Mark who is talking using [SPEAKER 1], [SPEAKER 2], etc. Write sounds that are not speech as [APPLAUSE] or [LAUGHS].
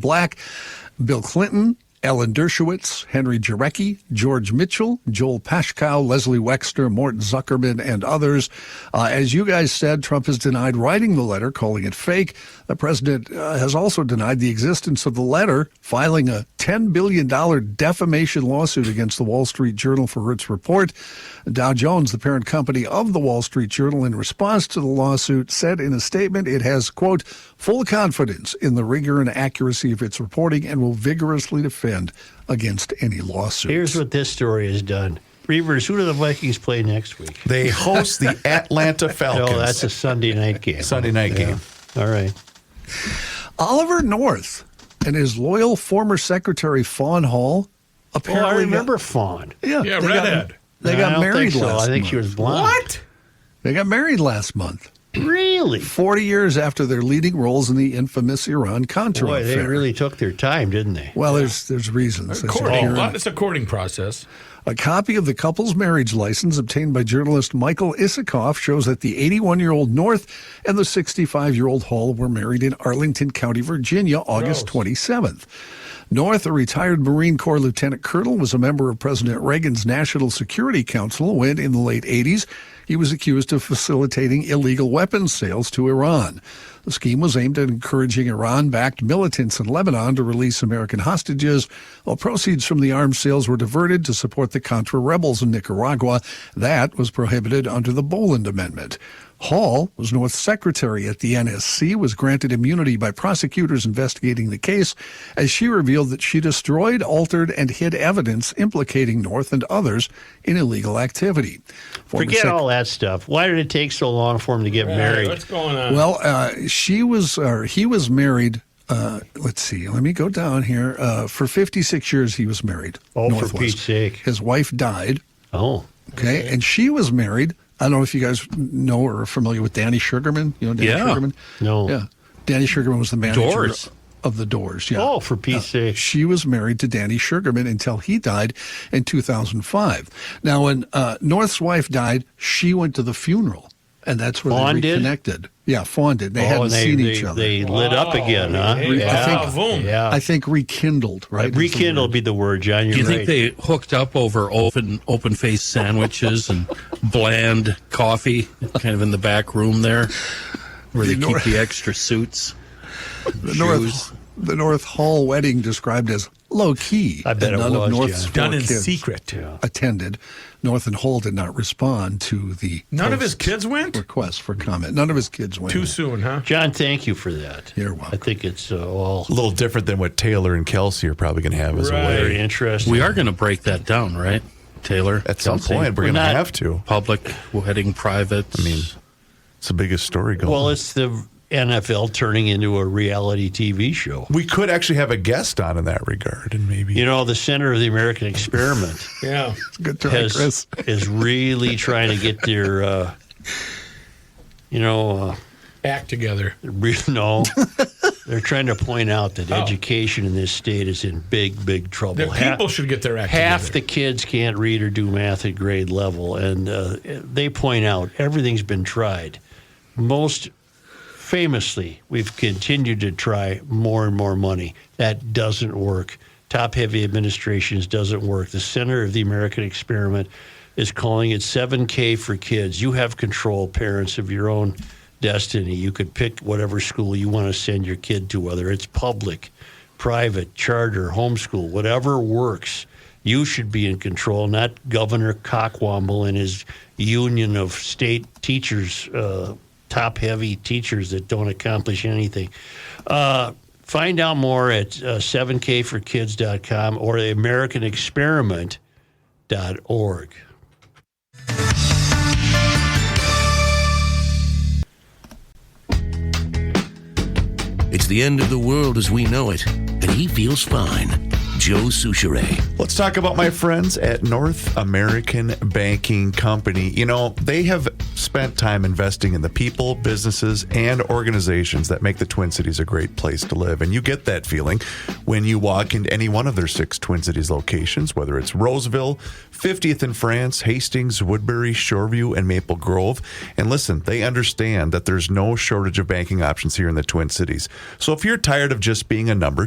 [SPEAKER 1] Black, Bill Clinton, Ellen Dershowitz, Henry Jarecki, George Mitchell, Joel Pashkow, Leslie Wexner, Mort Zuckerman, and others. Uh, as you guys said, Trump has denied writing the letter, calling it fake. The president uh, has also denied the existence of the letter, filing a $10 billion defamation lawsuit against the Wall Street Journal for its report. Dow Jones, the parent company of the Wall Street Journal, in response to the lawsuit, said in a statement it has, quote, full confidence in the rigor and accuracy of its reporting and will vigorously defend against any lawsuit.
[SPEAKER 2] Here's what this story has done. Reavers, who do the Vikings play next week?
[SPEAKER 3] They
[SPEAKER 2] [LAUGHS]
[SPEAKER 3] host the Atlanta Falcons.
[SPEAKER 2] No, that's a Sunday night game.
[SPEAKER 3] Sunday night
[SPEAKER 2] Yeah.
[SPEAKER 3] game.
[SPEAKER 2] All right.
[SPEAKER 1] Oliver North and his loyal former secretary, Fawn Hall,
[SPEAKER 2] Well,
[SPEAKER 1] apparently.
[SPEAKER 2] Oh, I remember Fawn.
[SPEAKER 1] Yeah,
[SPEAKER 4] Yeah,
[SPEAKER 1] they got,
[SPEAKER 4] redhead.
[SPEAKER 1] they
[SPEAKER 2] No, I
[SPEAKER 1] got
[SPEAKER 2] don't
[SPEAKER 1] married
[SPEAKER 2] think so.
[SPEAKER 1] last
[SPEAKER 2] I think
[SPEAKER 1] month.
[SPEAKER 2] she was blonde.
[SPEAKER 1] They got married last month,
[SPEAKER 2] Really?
[SPEAKER 1] 40 years after their leading roles in the infamous Iran Contra
[SPEAKER 2] Boy, they
[SPEAKER 1] affair.
[SPEAKER 2] really took their time, didn't they?
[SPEAKER 1] well, there's there's reasons. There's
[SPEAKER 2] Oh,
[SPEAKER 4] Courting.
[SPEAKER 1] appearance.
[SPEAKER 4] It's Oh, a courting process.
[SPEAKER 1] A copy of the couple's marriage license obtained by journalist Michael Isikoff shows that the 81 year old North and the 65 year old Hall were married in Arlington County, Virginia, August 27th. North, a retired Marine Corps lieutenant colonel, was a member of President Reagan's National Security Council when, in the late 80s, he was accused of facilitating illegal weapons sales to Iran. The scheme was aimed at encouraging Iran backed militants in Lebanon to release American hostages, while proceeds from the arms sales were diverted to support the Contra rebels in Nicaragua. That was prohibited under the Boland Amendment. Hall was North's secretary at the NSC, was granted immunity by prosecutors investigating the case, as she revealed that she destroyed, altered, and hid evidence implicating North and others in illegal activity. Former
[SPEAKER 2] Forget
[SPEAKER 1] sec-
[SPEAKER 2] all that stuff. Why did it take so long for them to get
[SPEAKER 4] Hey,
[SPEAKER 2] married?
[SPEAKER 4] what's going on?
[SPEAKER 1] Well, uh, she was, or he was married. Uh, let's see. Let me go down here. Uh, for 56 years, he was married.
[SPEAKER 2] Oh, for
[SPEAKER 1] North was.
[SPEAKER 2] Pete's sake.
[SPEAKER 1] His wife died.
[SPEAKER 2] oh,
[SPEAKER 1] Okay, and she was married. I don't know if you guys know or are familiar with Danny Sugarman. You know Danny
[SPEAKER 3] Yeah.
[SPEAKER 1] Sugarman?
[SPEAKER 2] No.
[SPEAKER 1] Yeah. Danny Sugarman was the manager
[SPEAKER 3] Doors.
[SPEAKER 1] of the Doors. Yeah.
[SPEAKER 2] oh, for Pete's sake.
[SPEAKER 1] She was married to Danny Sugarman until he died in 2005. Now, when uh, North's wife died, she went to the funeral, and that's where
[SPEAKER 2] Fawn
[SPEAKER 1] they
[SPEAKER 2] did?
[SPEAKER 1] reconnected. Yeah, Fawn did. They
[SPEAKER 2] oh,
[SPEAKER 1] hadn't
[SPEAKER 2] and they,
[SPEAKER 1] seen
[SPEAKER 2] they,
[SPEAKER 1] each other.
[SPEAKER 2] they lit up again, huh?
[SPEAKER 4] Hey,
[SPEAKER 2] yeah.
[SPEAKER 4] wow, Ah, boom.
[SPEAKER 2] yeah.
[SPEAKER 1] I think rekindled, right? is the
[SPEAKER 2] Rekindle
[SPEAKER 1] word.
[SPEAKER 2] be the word, John. You're
[SPEAKER 5] Do you
[SPEAKER 2] right.
[SPEAKER 5] think they hooked up over open open faced sandwiches and bland coffee, kind of in the back room there, where they
[SPEAKER 1] You know-
[SPEAKER 5] keep the extra suits?
[SPEAKER 1] The North, the North Hall wedding described as low key.
[SPEAKER 2] I bet
[SPEAKER 1] and
[SPEAKER 2] it
[SPEAKER 1] none
[SPEAKER 2] was,
[SPEAKER 1] of North's
[SPEAKER 2] yeah.
[SPEAKER 1] four
[SPEAKER 4] Done in
[SPEAKER 1] kids
[SPEAKER 4] secret.
[SPEAKER 1] Attended. North and Hall did not respond to the
[SPEAKER 4] None of his
[SPEAKER 1] post's
[SPEAKER 4] kids went?
[SPEAKER 1] request for comment. None of his kids went.
[SPEAKER 4] Too soon, huh?
[SPEAKER 2] John, thank you for that.
[SPEAKER 1] You're welcome.
[SPEAKER 2] I think it's uh, all
[SPEAKER 3] A little different than what Taylor and Kelsey are probably going to have as
[SPEAKER 4] Right.
[SPEAKER 3] a
[SPEAKER 2] very
[SPEAKER 3] wedding.
[SPEAKER 2] interesting.
[SPEAKER 5] We are going to break that down, right, Taylor?
[SPEAKER 3] At some
[SPEAKER 5] Kelsey?
[SPEAKER 3] point, we're
[SPEAKER 2] We're
[SPEAKER 3] going to
[SPEAKER 2] not-
[SPEAKER 3] have to.
[SPEAKER 5] public wedding, private. I mean,
[SPEAKER 3] It's the biggest story going.
[SPEAKER 2] Well, it's the NFL turning into a reality TV show.
[SPEAKER 3] we could actually have a guest on in that regard, and maybe
[SPEAKER 2] You know, the center of the
[SPEAKER 4] [LAUGHS]
[SPEAKER 2] American experiment
[SPEAKER 4] Yeah.
[SPEAKER 1] Good try,
[SPEAKER 2] has,
[SPEAKER 1] Chris.
[SPEAKER 2] is really trying to get their, uh, you know, uh,
[SPEAKER 4] Act together.
[SPEAKER 2] re-
[SPEAKER 4] [LAUGHS]
[SPEAKER 2] no. They're trying to point out that
[SPEAKER 4] Oh.
[SPEAKER 2] education in this state is in big, big trouble.
[SPEAKER 4] The
[SPEAKER 2] Ha-
[SPEAKER 4] people should get their act
[SPEAKER 2] half the
[SPEAKER 4] together.
[SPEAKER 2] kids can't read or do math at grade level, and uh, they point out everything's been tried. Most famously, we've continued to try more and more money. That doesn't work. Top heavy administrations doesn't work. The center of the American experiment is calling it 7K for kids. You have control, parents, of your own destiny. You could pick whatever school you want to send your kid to, whether it's public, private, charter, homeschool, whatever works. You should be in control, not Governor Cockwomble and his union of state teachers, uh, top heavy teachers that don't accomplish anything. Uh, find out more at uh, 7kforkids.com or the American Experiment dot org.
[SPEAKER 6] It's the end of the world as we know it, and he feels fine. Joe Souchere.
[SPEAKER 3] Let's talk about my friends at North American Banking Company. You know, they have spent time investing in the people, businesses, and organizations that make the Twin Cities a great place to live. And you get that feeling when you walk into any one of their six Twin Cities locations, whether it's Roseville, 50th in France, Hastings, Woodbury, Shoreview, and Maple Grove. And listen, they understand that there's no shortage of banking options here in the Twin Cities. So if you're tired of just being a number,